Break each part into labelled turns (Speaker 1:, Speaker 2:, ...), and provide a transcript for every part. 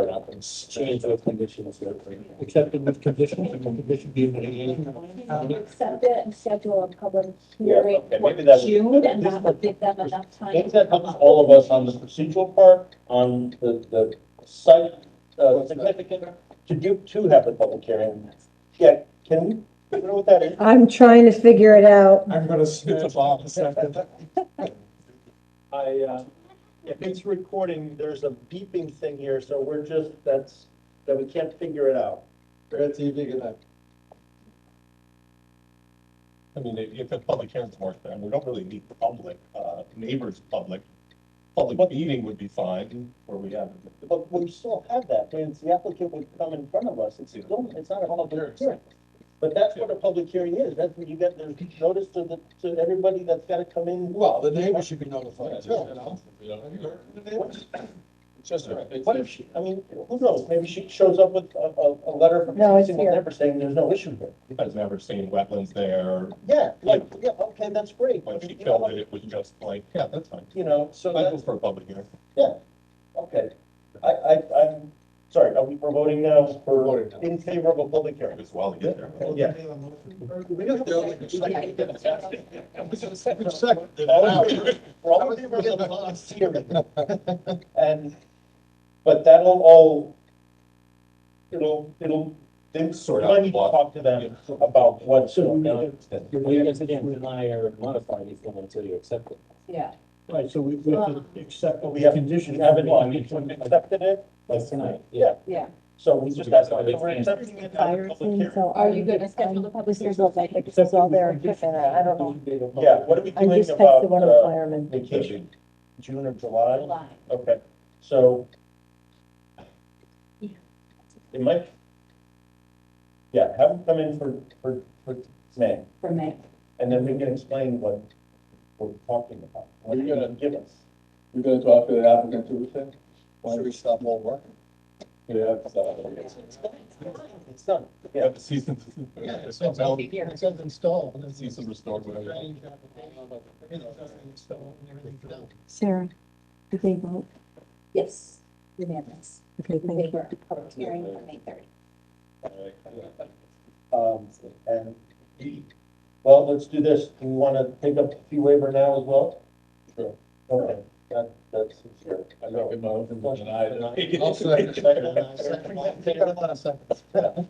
Speaker 1: it up and change those conditions.
Speaker 2: accepted with conditions, and the condition being that any-
Speaker 3: Accept it and schedule a public
Speaker 1: Yeah,
Speaker 3: hearing
Speaker 1: okay,
Speaker 3: for
Speaker 1: maybe that was-
Speaker 3: June and that would give them enough time.
Speaker 1: Things that helps all of us on the procedural part, on the, the site, uh, significant, to do, to have the public hearing. Yeah, can we figure out what that is?
Speaker 4: I'm trying to figure it out.
Speaker 2: I'm gonna snitch off a second.
Speaker 1: I, uh, if it's recording, there's a beeping thing here, so we're just, that's, that we can't figure it out.
Speaker 2: That's easy, good night.
Speaker 5: I mean, if if it's public hearing, it's more fair, and we don't really need public, uh, neighbors, public. Public meeting would be fine, where we have.
Speaker 1: But we still have that, and the applicant would come in front of us, it's, still- it's not a public hearing. But that's what a public hearing is, that's when you get the notice to the, to everybody that's gotta come in.
Speaker 2: Well, the neighbor should be notified too, you know? The neighbors. It's Just right.
Speaker 1: What if she, I mean, who knows, maybe she shows up with a, a, a letter from
Speaker 4: No,
Speaker 1: every
Speaker 4: it's
Speaker 1: single
Speaker 4: here.
Speaker 1: neighbor saying there's no issue here.
Speaker 5: I've never seen wetlands there,
Speaker 1: Yeah, like, yeah, okay, that's great.
Speaker 5: when
Speaker 1: but
Speaker 5: she
Speaker 1: you know
Speaker 5: killed
Speaker 1: what,
Speaker 5: it, it was just like, yeah, that's fine.
Speaker 1: You know, so
Speaker 5: I go
Speaker 1: that's,
Speaker 5: for a public hearing.
Speaker 1: okay, I, I, I'm, sorry, are we we're voting now for,
Speaker 2: Voting now.
Speaker 1: in favor of a public hearing?
Speaker 5: As well, yeah.
Speaker 1: Yeah. All in favor- We're all in favor of the last hearing. And, but that'll all, it'll, it'll, then sort
Speaker 5: Sort
Speaker 1: of,
Speaker 5: out
Speaker 1: I need to
Speaker 5: what-
Speaker 1: talk to them about what's.
Speaker 6: So we
Speaker 1: going on.
Speaker 6: need You guys can't deny or modify anything until you accept it.
Speaker 3: Yeah.
Speaker 6: Right, so we, we have to accept
Speaker 1: But
Speaker 6: what
Speaker 1: we
Speaker 6: we
Speaker 1: have-
Speaker 6: have
Speaker 1: We
Speaker 6: conditioned.
Speaker 1: haven't, well, we accepted it,
Speaker 6: Like tonight,
Speaker 1: yeah,
Speaker 6: yeah.
Speaker 3: Yeah.
Speaker 1: so we just, that's why we're accepting it. at the public hearing.
Speaker 3: Are you gonna
Speaker 4: um,
Speaker 3: schedule a public
Speaker 4: This is
Speaker 3: hearing?
Speaker 4: all there, this is all there, I don't know.
Speaker 1: Yeah, what are we
Speaker 4: I
Speaker 1: doing
Speaker 4: just texted
Speaker 1: about,
Speaker 4: one of the
Speaker 1: uh,
Speaker 4: firemen.
Speaker 1: vacation, June or July?
Speaker 3: July.
Speaker 1: Okay, so.
Speaker 3: Yeah.
Speaker 1: It might. Yeah, have them come in for, for, for May.
Speaker 3: For May.
Speaker 1: And then we can explain what we're talking about, what
Speaker 2: You're
Speaker 1: you're
Speaker 2: gonna-
Speaker 1: gonna give us.
Speaker 2: You're gonna talk to the applicant Tuesday? Why do we stop all work?
Speaker 1: Yeah. It's done, yeah.
Speaker 5: Have the season. It's not valid. It says install, and then season restored, whatever.
Speaker 4: Sarah, did they vote?
Speaker 3: Yes. Unanimous.
Speaker 4: Okay,
Speaker 3: In
Speaker 4: thank you.
Speaker 3: favor of Public hearing for May thirty.
Speaker 1: Um, and, well, let's do this, do you wanna take up the fee waiver now as well?
Speaker 2: Sure.
Speaker 1: Okay, that, that's sincere.
Speaker 2: I make a motion to deny it.
Speaker 1: I'll second.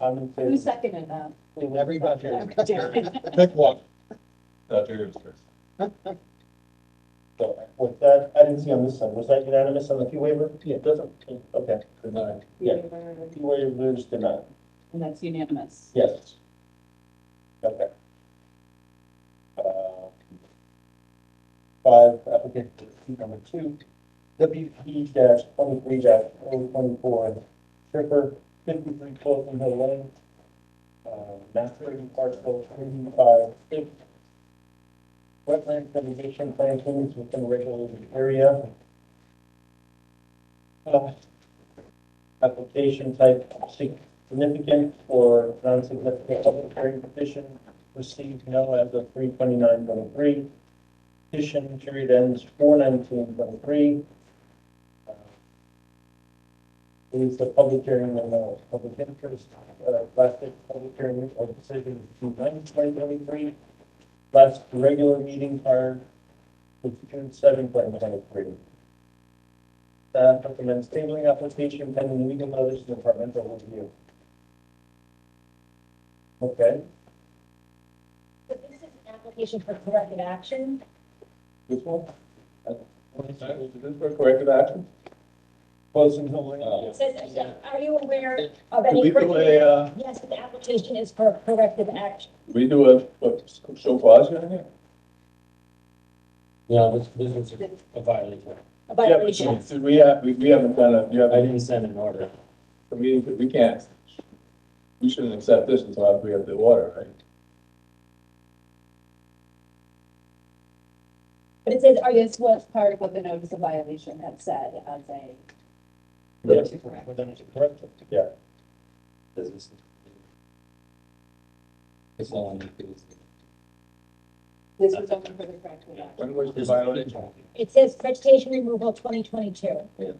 Speaker 1: I'm in
Speaker 3: Who
Speaker 1: favor.
Speaker 3: seconded that?
Speaker 1: Everybody.
Speaker 5: Pick one. That's yours first.
Speaker 1: So, with that, I didn't see on this side, was that unanimous on the fee waiver? Yeah. Doesn't, okay,
Speaker 2: Deny.
Speaker 1: Yeah.
Speaker 3: Waiver,
Speaker 1: fee waiver is denied,
Speaker 3: And that's unanimous.
Speaker 1: yes. Okay. Uh, Five, applicant number two, WP dash twenty-three dash oh twenty-four, Tripper, fifty-three Fulton Hill Lane. Uh, master parcel thirty-five six. Wetland mitigation plantings within regulated area. Uh, Application type significant or non-significant public hearing petition received no as of three twenty-nine twenty-three. Petition period ends four nineteen twenty-three. Uh, Is the public hearing and uh public interest, uh, last day of public hearing or decision June ninth, twenty twenty-three. Last regular meeting prior to June seventh, twenty twenty-three. Staff recommends tabling application pending legal notice and departmental review. Okay,
Speaker 7: So this is an application for corrective action.
Speaker 2: This one? Corrected action?
Speaker 1: closing the link.
Speaker 2: Oh.
Speaker 7: It says, are you aware of
Speaker 2: Do
Speaker 7: any?
Speaker 2: we do a, uh,
Speaker 7: Yes, the application is for corrective action.
Speaker 2: we do a, what, show cause here?
Speaker 6: No, this, this is a violation.
Speaker 7: A
Speaker 2: Yeah, but
Speaker 7: violation.
Speaker 2: since we have, we, we haven't done a, you
Speaker 6: I
Speaker 2: have,
Speaker 6: didn't send an order.
Speaker 2: we, we can't. We shouldn't accept this until after we have the order, right?
Speaker 7: But it says, are you,
Speaker 3: This was part of what the notice of violation had said as a.
Speaker 1: Yes, we're done, correct? Yeah,
Speaker 6: Does this- It's not on the-
Speaker 3: This was only for the corrective action.
Speaker 2: When was the violation?
Speaker 7: it says vegetation removal twenty twenty-two.